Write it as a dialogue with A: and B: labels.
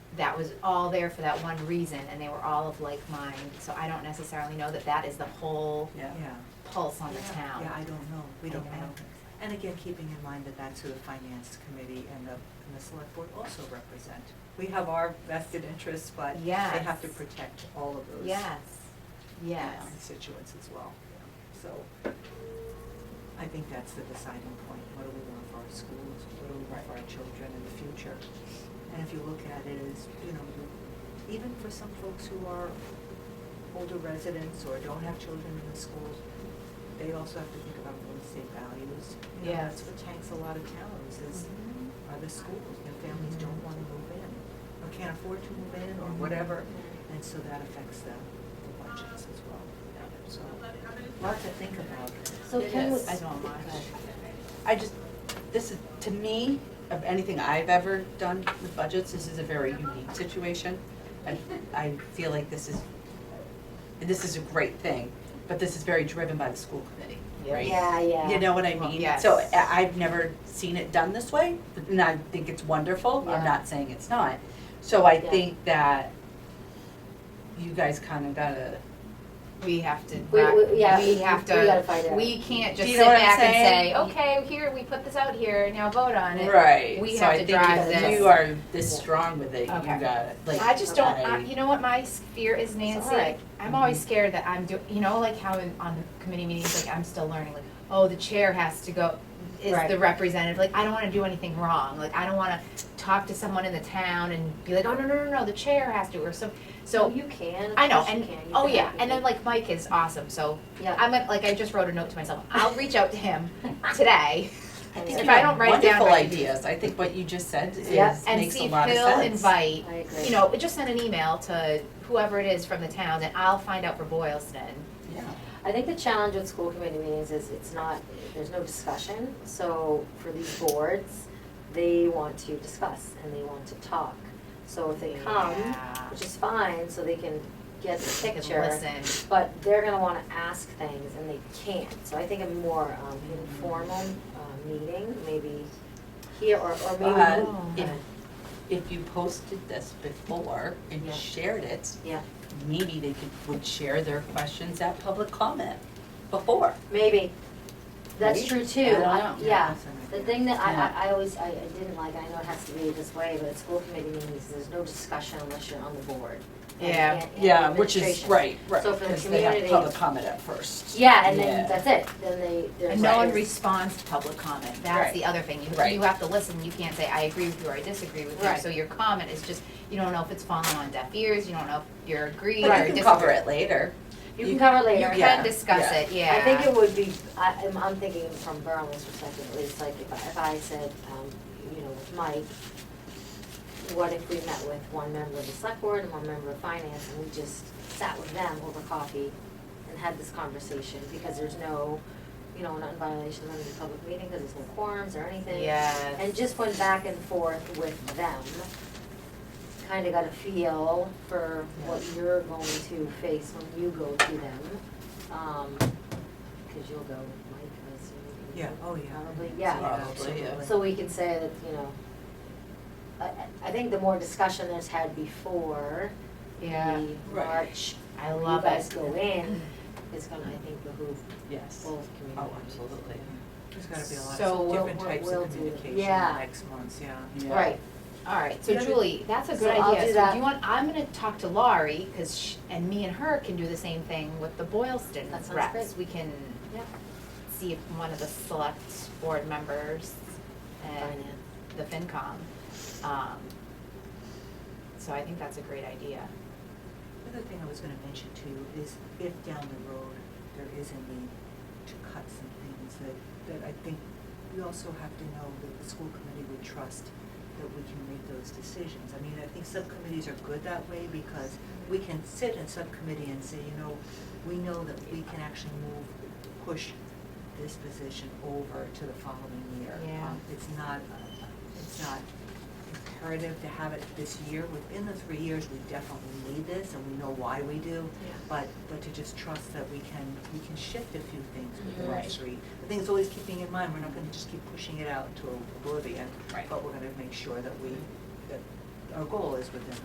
A: that was all there for that one reason, and they were all of like mind, so I don't necessarily know that that is the whole
B: Yeah,
C: Yeah,
A: pulse on the town.
C: yeah, I don't know, we
A: I
C: don't
A: I
C: know. And again, keeping in mind that that's who the finance committee and the, and the select board also represent. We have our vested interests, but they have to
A: Yes.
C: protect all of those.
A: Yes, yes,
C: constituents as well. So I think that's the deciding point. What do we want for our schools? What do we want for our children in the future? And if you look at it as, you know, you- even for some folks who are older residents or don't have children in the schools, they also have to think about real estate values. You
A: Yes.
C: know,
A: Mm-hmm.
C: That's what tanks a lot of towns is, are the schools, and families don't want to move in, or can't afford to move in, or whatever. And so that affects the, the budgets as well. So, lot to think about.
A: so
D: It
A: can we,
D: is.
A: I don't mind.
D: I just, this is, to me, of anything I've ever done with budgets, this is a very unique situation. I, I feel like this is, this is a great thing, but this is very driven by the school committee, right?
A: Yeah, yeah.
D: You know what I
A: Well,
D: mean?
A: yes.
D: So I, I've never seen it done this way, and I think it's wonderful,
A: Yeah.
D: I'm not saying it's not. So I
A: Yeah.
D: think that you guys kinda gotta,
A: We have to,
E: We- we- yeah,
A: we have
E: we gotta
A: to,
E: find out.
A: we can't just
D: Do
A: sit
D: you know what I'm
A: back and say,
D: saying?
A: okay, here, we put this out here, now vote on it.
D: right,
A: We
D: so
A: have
D: I
A: to
D: think
A: drive
D: if
A: this.
D: you are this strong with it, you
A: Okay.
D: gotta, like,
A: I just don't. I,
D: I-
A: you know what my s- fear is, Nancy.
E: alright.
A: I'm always scared that I'm doing. You know, like how in, on the committee meetings, like I'm still learning. Like, oh, the chair has to go. Is
E: Right.
A: the representative like I don't want to do anything wrong. Like I don't want to talk to someone in the town and be like, oh no no no no, the chair has to or so.
E: So
A: So
E: you can. of
A: I know
E: course you
A: and
E: can, you
A: oh
E: can
A: yeah,
E: have
A: and then
E: people-
A: like Mike is awesome. So
E: Yeah,
A: I'm a, like I just wrote a note to myself. I'll reach out to him today
D: I
E: and
D: think
A: if
D: you
A: I
D: have
A: don't write down
D: wonderful
A: my-
D: ideas. I think what you just said is
E: Yeah.
A: and
D: makes
A: see
D: a
A: if
D: lot of sense.
A: he'll invite.
E: I agree.
A: you know, just send an email to whoever it is from the town, and I'll find out for Boylston.
D: Yeah.
E: I think the challenge with school committee meetings is it's not, there's no discussion, so for these boards, they want to discuss and they want to talk. So if they come,
A: Yeah.
E: which is fine, so they can get the
A: They can
E: picture.
A: Listen.
E: But they're gonna wanna ask things and they can't, so I think a more um informal uh meeting, maybe here or or maybe.
D: But
A: Oh.
D: if, if you posted this before
E: Yeah.
D: and shared it,
E: Yeah,
D: maybe they could, would share their questions at public comment before.
E: maybe, that's
D: Maybe.
E: true too,
D: I don't know.
E: I- yeah,
C: That's an
E: The
C: idea.
E: thing that
D: Yeah.
E: I, I, I always, I, I didn't like, I know it has to be this way, but at school committee meetings, there's no discussion unless you're on the board. and you
A: Yeah.
E: can't- and
D: Yeah, which is,
E: administration.
D: right, right,
E: So for the
D: because they have
E: community-
D: public comment at first.
E: Yeah, and then
D: Yeah.
E: that's it, then they, there's.
A: And no one
E: there's-
A: responds to public comment, that's
D: Right.
A: the other thing, you,
D: Right.
A: you have to listen, you can't say, I agree with you or I disagree with you,
E: Right.
A: so your comment is just, you don't know if it's falling on deaf ears, you don't know if you're agreeing or
D: But you
A: disagreeing.
D: can cover it later.
E: You can cover it
A: You
E: later.
A: can
D: Yeah,
A: discuss
D: yeah.
A: it, yeah.
E: I think it would be, I, I'm, I'm thinking from Berlin's perspective at least, like if I, if I said, um, you know, with Mike, what if we met with one member of the select board and one member of finance and we just sat with them over coffee and had this conversation, because there's no, you know, we're not in violation of any public meeting, because there's no quorums or anything.
A: Yes.
E: And just went back and forth with them, kinda got a feel for what you're going to face when you go to them. Um, cause you'll go, Mike, I assume.
C: Yeah, oh, yeah.
E: Probably, yeah.
D: Probably, yeah.
E: So we can say that, you know, I- I, I think the more discussion there's had before
A: Yeah,
E: the
D: Right.
E: March,
A: I
E: you
A: love
E: guys
A: it,
E: go in, is gonna, I think, behoove
D: Yes.
E: both
D: Oh,
E: communities.
D: absolutely.
C: There's gotta be a lot
A: So
C: of
E: we'll-
C: different
E: we'll-
C: types
E: we'll
C: of
E: do-
C: communication
E: yeah.
C: next month, yeah.
D: Yeah.
E: Right,
A: alright, so
C: Yeah, but-
A: Julie, that's a
E: So
A: good idea,
E: I'll
A: so
E: do
A: do
E: that.
A: you want, I'm gonna talk to Laurie, cause sh and me and her can do the same thing with the Boylston
E: That sounds
A: reps.
E: great.
A: We can
E: Yep.
A: see if one of the select board members and
E: finance,
A: the FinCom. Um, so I think that's a great idea.
C: The other thing I was gonna mention too is if down the road there is a need to cut some things that, that I think we also have to know that the school committee would trust that we can make those decisions. I mean, I think subcommittees are good that way because we can sit in subcommittee and say, you know, we know that we can actually move, push this position over to the following year.
A: Yeah.
C: Um, It's not, uh, it's not imperative to have it this year. Within the three years, we definitely need this, and we know why we do. But, but to just trust that we can, we can shift a few things within
D: Right.
C: those three. The thing is always keeping in mind, we're not gonna just keep pushing it out to oblivion.
D: Right.
C: But we're gonna make sure that we, that our goal is within